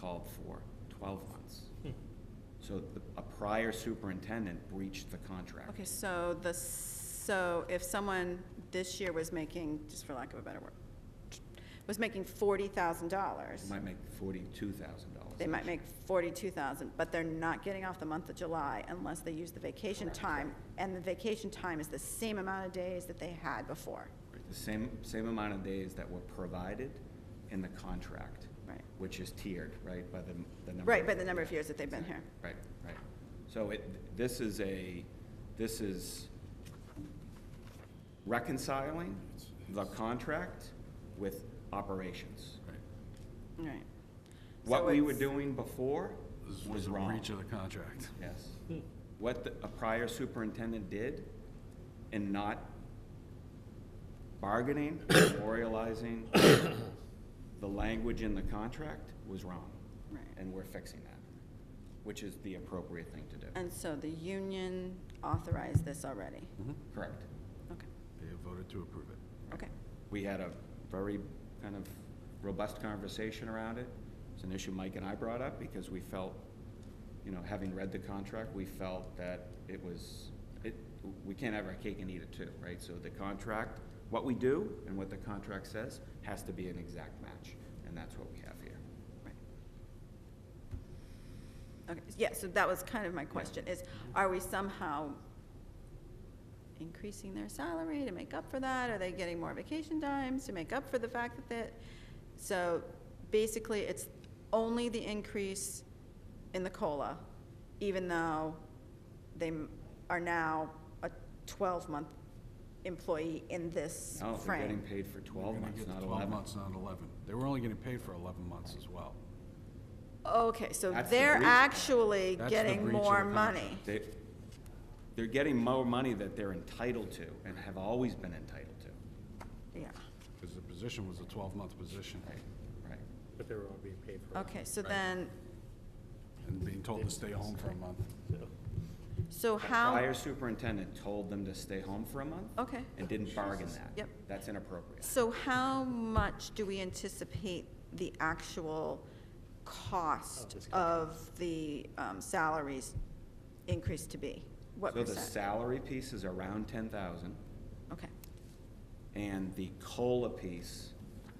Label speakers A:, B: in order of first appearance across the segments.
A: called for, twelve months. So the, a prior superintendent breached the contract.
B: Okay, so the, so if someone this year was making, just for lack of a better word, was making forty thousand dollars,
A: It might make forty-two thousand dollars.
B: they might make forty-two thousand, but they're not getting off the month of July unless they use the vacation time, and the vacation time is the same amount of days that they had before.
A: The same, same amount of days that were provided in the contract.
B: Right.
A: Which is tiered, right, by the, the number.
B: Right,
A: of-
B: by the number of years that they've been here.
A: Right, right. So it, this is a, this is reconciling the contract with operations.
B: Right.
A: What
B: So
A: we were
B: it's-
A: doing before
C: This
A: was
C: a
A: wrong.
C: Breach of the contract.
A: Yes.
B: Hmm.
A: What the- a prior superintendent did in not bargaining, memorializing the language in the contract was wrong.
B: Right.
A: And we're fixing that, which is the appropriate thing to do.
B: And so the union authorized this already?
A: Mm-hmm. Correct.
B: Okay,
C: They have voted to approve it.
B: okay.
A: We had a very kind of robust conversation around it. It's an issue Mike and I brought up because we felt, you know, having read the contract, we felt that it was, it, we can't have our cake and eat it too, right? So the contract, what we do and what the contract says has to be an exact match, and that's what we have here.
B: Right. Okay, yeah, so that was kind of my question, is are we somehow increasing their salary to make up for that? Are they getting more vacation times to make up for the fact that that? So basically, it's only the increase in the COLA, even though they m- are now a twelve-month employee in this
A: No, they're getting
B: frame.
A: paid for twelve
C: We're gonna
A: months,
C: get
A: not
C: Twelve
A: eleven.
C: months, not eleven. They were only getting paid for eleven months as well.
B: Okay, so
A: That's the
B: they're
A: breach.
B: actually
C: That's the
B: getting
C: breach of the
B: more
C: contract.
B: money.
A: They, they're getting more money that they're entitled to and have always been entitled to.
B: Yeah,
C: Because the position was a twelve-month position.
A: Right, right.
D: But they were all being paid for. it.
B: okay, so then,
C: And being told to stay home for a month.
D: So,
B: so
A: The
B: how,
A: prior superintendent told them to stay home for a month.
B: Okay.
A: And didn't bargain that.
B: Yep.
A: That's inappropriate.
B: so how much do we anticipate the actual cost
D: this
B: of the um, salaries increase to be? What
A: So the
B: percent?
A: salary piece is around ten thousand,
B: Okay,
A: and the COLA piece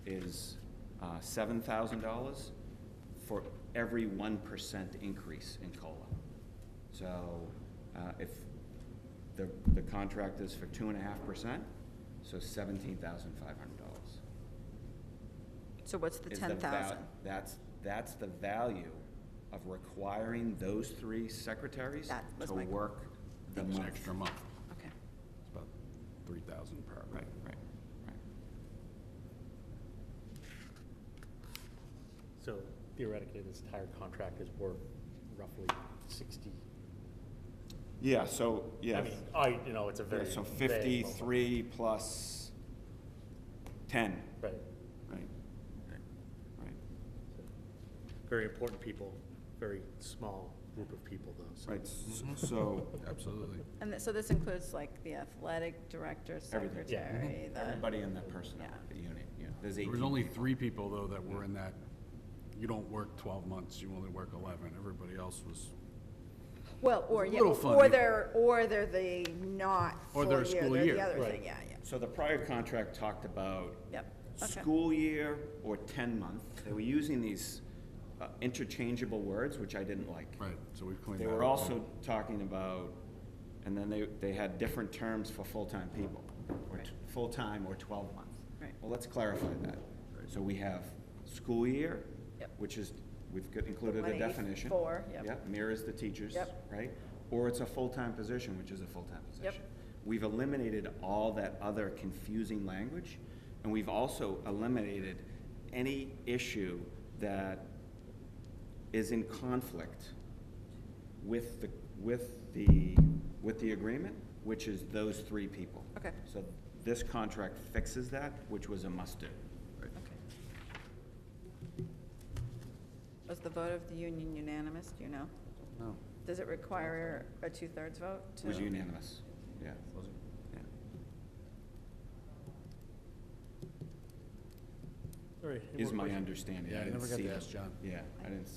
A: is uh, seven thousand dollars for every one percent increase in COLA. So uh, if the, the contract is for two and a half percent, so seventeen thousand five hundred dollars.
B: so what's the
A: is the
B: ten thousand?
A: val- That's, that's the value of requiring those three secretaries
B: That was
A: to
B: my-
A: work the
C: It's
A: month.
C: an extra month.
B: Okay,
C: It's about three thousand per.
A: Right, right, right.
D: So theoretically, this entire contract is worth roughly sixty.
A: Yeah, so,
D: I mean, I, you know, it's a
A: Yeah,
D: very.
A: so
D: vague number.
A: fifty-three plus ten,
D: Right.
A: right? Right,
D: Very important people, very small group of people though, so.
A: right, s- so,
C: Absolutely.
B: and th- so this includes like the athletic director,
A: Everything. Yeah.
B: secretary,
C: Mm-hmm.
B: the,
A: everybody in the personnel,
B: Yeah.
A: the unit, yeah, there's
C: There
A: eighteen.
C: was only three people, though, that were in that, you don't work twelve months, you only work eleven. Everybody else was,
B: well, or,
C: a
B: yeah,
C: little
B: or
C: funny.
B: they're, or they're the not
C: Or
B: full
C: they're
B: year,
C: a school
B: they're the
C: year.
B: other
D: Right.
B: thing, yeah, yeah,
A: So the prior contract talked about
B: yep, okay.
A: school year or ten month. They were using these uh, interchangeable words, which I didn't like.
C: right, so we've cleaned
A: They
C: that up.
A: were also talking about, and then they, they had different terms for full-time people, or t- full-time or twelve month.
B: Right.
A: Well, let's clarify that. So we have school year,
B: Yep.
A: which is, we've got- included a
B: 184,
A: definition.
B: yep.
A: Yep, mirrors the teachers,
B: Yep.
A: right? Or it's a full-time position, which is a full-time
B: Yep.
A: position. We've eliminated all that other confusing language, and we've also eliminated any issue that is in conflict with the, with the, with the agreement, which is those three people.
B: Okay.
A: So this contract fixes that, which was a must-do.
B: Okay. Was the vote of the union unanimous, do you know?
C: No.
B: Does it require a two-thirds vote
A: It
B: to?
A: was unanimous, yeah.
C: Was it?
A: Yeah.
D: All right, any
A: Is
D: more
A: my
D: questions?
A: understanding.
C: Yeah, I
A: didn't
C: never got to
A: see-
C: ask John.
A: Yeah, I didn't